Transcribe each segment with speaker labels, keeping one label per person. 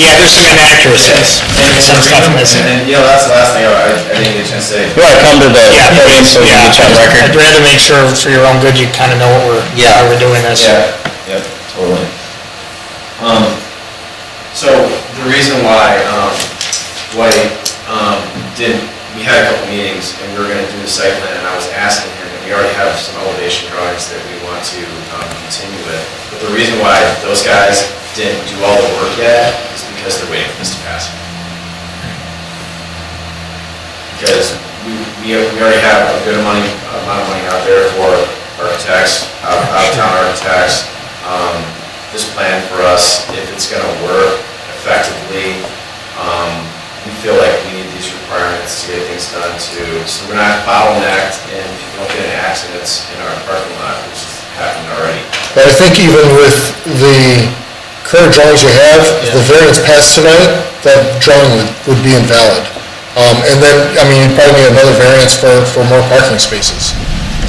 Speaker 1: Yeah, there's some inaccuracies and some stuff missing.
Speaker 2: And, you know, that's the last thing I, I didn't get a chance to say.
Speaker 3: You want to come to the
Speaker 1: Yeah,
Speaker 3: podium so we
Speaker 1: yeah,
Speaker 3: can get you on
Speaker 1: I'd
Speaker 3: record?
Speaker 1: rather make sure for your own good, you kind of know what we're, how we're doing this.
Speaker 2: Yeah, yep, totally. Um, so the reason why, um, White, um, did, we had a couple meetings and we were gonna do the site plan and I was asking him, and we already have some elevation drawings that we want to, um, continue with. But the reason why those guys didn't do all the work yet is because they're waiting for this to pass. because we, we we already have a good money, amount of money out there for architects, out- out-of-town architects. Um, This plan for us, if it's gonna work effectively, um, we feel like we need these requirements to get things done too. So we're not bottlenecked and people don't get in accidents in our parking lot, which has happened already.
Speaker 4: But I think even with the current drawings you have, if the variance passed tonight, that drawing would, would be invalid. Um, and then, I mean, you'd probably need another variance for, for more parking spaces,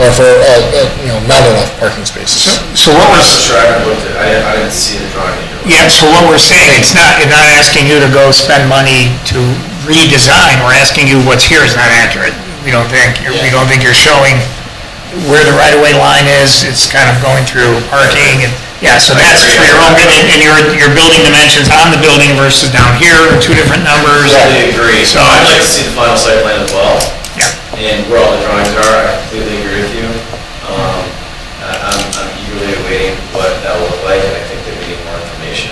Speaker 4: or for, uh, uh, you know, not enough parking spaces.
Speaker 5: So what
Speaker 2: I'm not so
Speaker 5: was,
Speaker 2: sure, I haven't looked at, I didn't, I didn't see the drawing that you were-
Speaker 1: Yeah, so what we're saying, it's not, it's not asking you to go spend money to redesign, we're asking you what's here is not accurate. We don't think, we don't think you're showing where the right-of-way line is, it's kind of going through parking, and, yeah, so that's for your own, good, and and your, your building dimensions on the building versus down here, are two different numbers.
Speaker 2: Completely agree.
Speaker 1: So-
Speaker 2: I'd like to see the final site plan as well.
Speaker 1: Yeah.
Speaker 2: And where all the drawings are, I completely agree with you. Um, I- I'm, I'm eagerly awaiting what that will look like, and I think that we need more information,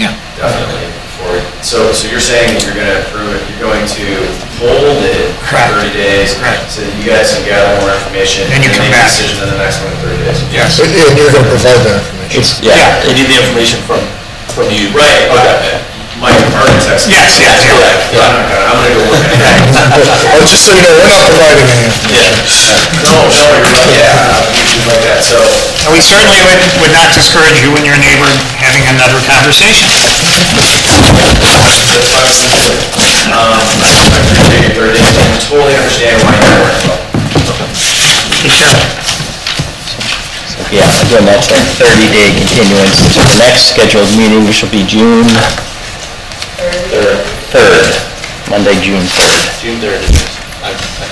Speaker 1: Yeah.
Speaker 2: definitely. before- So, so you're saying that you're gonna approve it, you're going to hold it for
Speaker 1: Correct.
Speaker 2: thirty days?
Speaker 1: Correct.
Speaker 2: So that you guys can gather more information?
Speaker 1: Then you come
Speaker 2: make a
Speaker 1: back.
Speaker 2: decision on the next one in thirty days?
Speaker 1: Yes.
Speaker 4: And and you're gonna provide that information.
Speaker 3: Yeah, you need the information from, from you.
Speaker 2: Right, okay. Mike, architects.
Speaker 1: Yes, yes, yeah.
Speaker 2: Yeah, I'm gonna- I'm gonna go look at that.
Speaker 4: Oh, just so you know, we're not providing any information.
Speaker 2: No, no, you're right, yeah, you're like that, so,
Speaker 1: And we certainly would, would not discourage you and your neighbor having another conversation.
Speaker 2: that's why I'm sensitive. Um, I appreciate your third day, I totally understand why you're working.
Speaker 1: Take care.
Speaker 3: Yeah, again, that's a 30-day continuance to the next scheduled meeting, which will be June
Speaker 2: Third,
Speaker 3: 3rd, Monday, June 3rd,
Speaker 2: June third.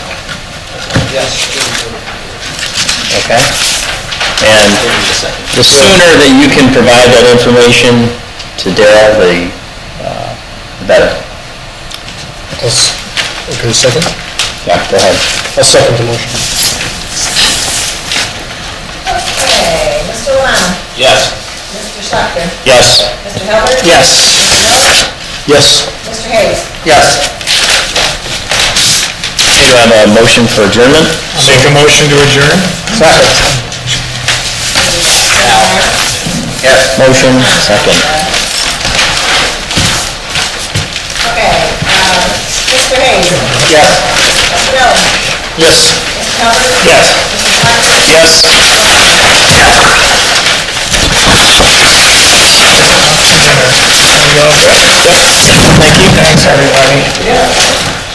Speaker 3: okay? And the sooner that you can provide that information to Daryl, the uh, the better.
Speaker 4: I'll s- Okay, second?
Speaker 3: Yeah, go ahead.
Speaker 4: I'll second the motion.
Speaker 6: Okay, Mr. Lano,
Speaker 3: Yes.
Speaker 6: Mr. Schlechter,
Speaker 3: Yes.
Speaker 6: Mr. Hubbard?
Speaker 1: Yes.
Speaker 3: Yes.
Speaker 6: Mr. Hayes?
Speaker 1: Yes.
Speaker 3: Do you have a motion for adjournment?
Speaker 1: Make a motion to adjourn?
Speaker 3: Yes. Motion, second.
Speaker 6: Okay, um, Mr. Hayes?
Speaker 3: Yes.
Speaker 6: Mr. Miller?
Speaker 3: Yes.
Speaker 6: Mr. Hubbard?
Speaker 3: Yes.
Speaker 6: Mr. Schlechter?
Speaker 3: Yes. Thank you. Thanks, everybody.